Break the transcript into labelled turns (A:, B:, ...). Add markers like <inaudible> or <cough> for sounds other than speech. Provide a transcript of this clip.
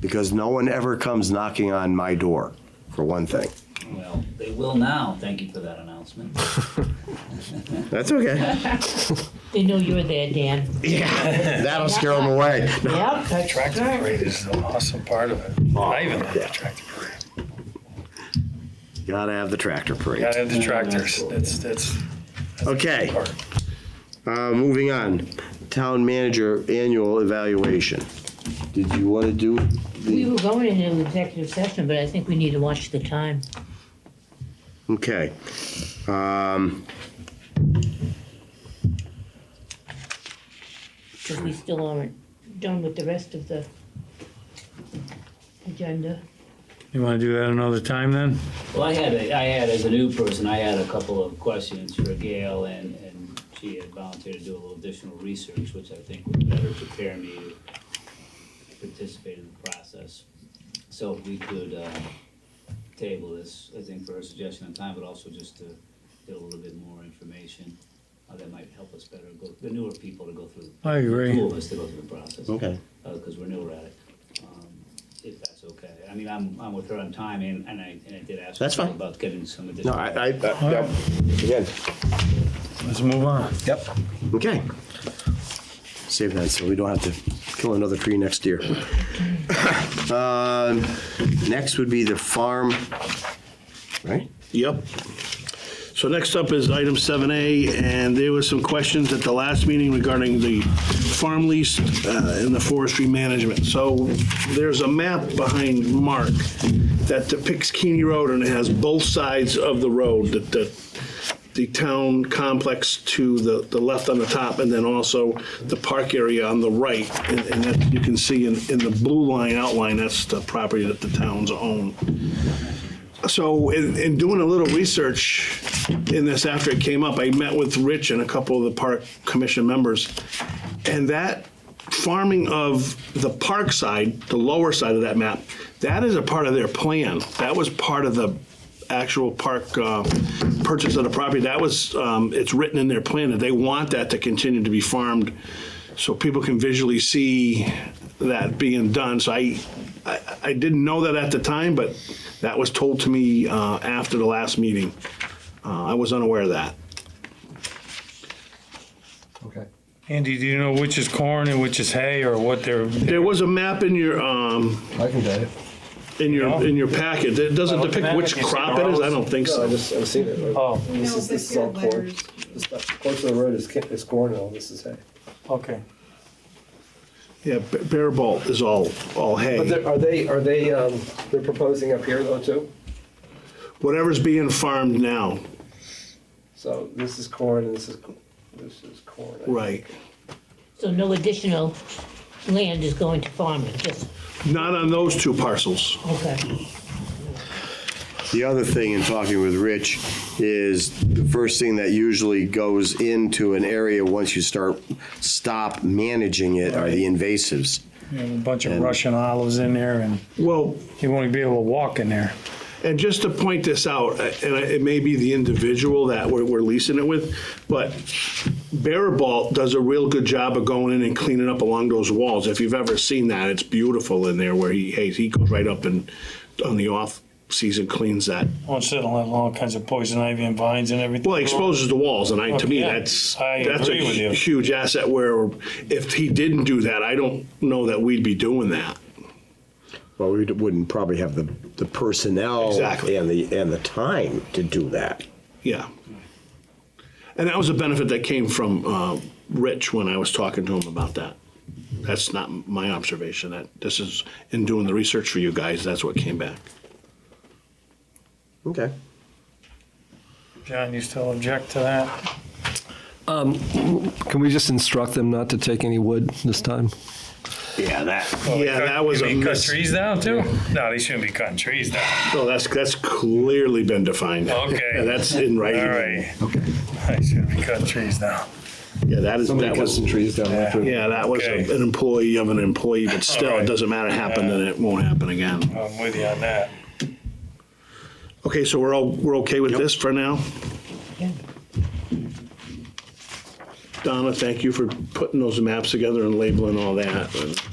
A: because no one ever comes knocking on my door, for one thing.
B: Well, they will now. Thank you for that announcement.
A: That's okay.
C: They know you're there, Dan.
A: That'll scare them away.
C: Yep.
D: That tractor parade is an awesome part of it.
E: Oh,
D: I even love the tractor parade.
A: Gotta have the tractor parade.
D: Gotta have the tractors. That's, that's
A: Okay,
D: part.
A: uh, moving on. Town manager annual evaluation. Did you want to do
C: We
A: the,
C: were going into executive session, but I think we need to watch the time.
A: okay. Um,
C: Because we still aren't done with the rest of the agenda.
F: You wanna do that another time then?
B: Well, I had, a, I had, as a new person, I had a couple of questions for Gail, and, and she had volunteered to do a little additional research, which I think would better prepare me to participate in the process. So if we could, uh, table this, I think for her suggestion on time, but also just to get a little bit more information, uh, that might help us better go, the newer people to go through.
F: I agree.
B: Two of us to go through the process.
A: Okay.
B: because uh, we're newer at it, um, if that's okay. I mean, I'm, I'm with her on time, and, and I, and I did ask.
A: That's
B: her
A: fine.
B: About getting some
A: No,
B: additional.
A: I, I, I- Uh, yep. again,
F: Let's move on.
A: yep, okay. Save that so we don't have to kill another tree next year. <coughs> Um, Next would be the farm, right?
E: Yep. So next up is item 7A, and there were some questions at the last meeting regarding the farm lease uh, and the forestry management. So there's a map behind Mark that depicts Keeney Road, and it has both sides of the road, the- the, the town complex to the, the left on the top, and then also the park area on the right. And and that you can see in, in the blue line outline, that's the property that the towns own. So in, in doing a little research in this after it came up, I met with Rich and a couple of the park commission members. And that farming of the park side, the lower side of that map, that is a part of their plan. That was part of the actual park uh, purchase of the property. That was, um, it's written in their plan that they want that to continue to be farmed so people can visually see that being done. So I, I, I didn't know that at the time, but that was told to me uh, after the last meeting. Uh, I was unaware of that.
F: Andy, do you know which is corn and which is hay or what they're?
E: There was a map in your, um,
G: I can get it.
E: in your, in your packet. It doesn't
F: Well,
E: depict
F: that
E: which
F: is
E: crop it is. I don't think
G: No, I
E: so.
G: just, I've seen it.
F: Oh,
G: This
H: No,
G: is, this
H: this
G: is all
H: had
G: corn.
H: letters.
G: This stuff, corn to the road is, ca- is corn and all this is hay.
F: okay.
E: Yeah, b- bare bolt is all, all
G: But
E: hay.
G: they're- are they, are they, um, they're proposing up here though too?
E: Whatever's being farmed now,
G: So this is corn and this is, this is corn. I
E: right.
C: So no additional land is going to farming, just,
E: Not on those two parcels.
C: okay.
A: The other thing in talking with Rich is the first thing that usually goes into an area once you start, stop managing it are the invasives.
F: You have a bunch of Russian olives in there and
E: Well,
F: you won't be able to walk in there.
E: And just to point this out, uh, and it may be the individual that we're, we're leasing it with, but Barabalt does a real good job of going in and cleaning up along those walls. If you've ever seen that, it's beautiful in there where he, hey, he goes right up and on the off season cleans that.
F: Won't sit on all kinds of poison ivy and vines and everything.
E: Well, he exposes the walls, and I, to me,
F: Okay.
E: that's,
F: I
E: that's a
F: agree with you.
E: huge asset where if he didn't do that, I don't know that we'd be doing that.
A: Well, we wouldn't probably have the, the personnel.
E: Exactly.
A: And the, and the time to do that.
E: Yeah. And that was a benefit that came from uh, Rich when I was talking to him about that. That's not my observation. That this is in doing the research for you guys. That's what came back.
A: Okay.
F: John, you still object to that?
I: Can we just instruct them not to take any wood this time?
A: Yeah, that.
E: yeah, that was a
F: Oh, Cut
E: miss.
F: trees down too? No, they shouldn't be cutting trees down.
E: No, oh, that's that's clearly been defined.
F: Okay.
E: Yeah, that's in
F: All
E: writing.
F: right. Okay. They shouldn't be cutting trees down.
E: Yeah, that is that was.
I: trees down there.
E: Yeah, that was a-
F: Okay.
E: an employee of an employee, but still,
F: All right.
E: it doesn't matter. Happened, and it won't happen again.
F: I'm with you on that.
E: Okay, so we're all we're okay with this for now. Donna, thank you for putting those maps together and labeling all that. and-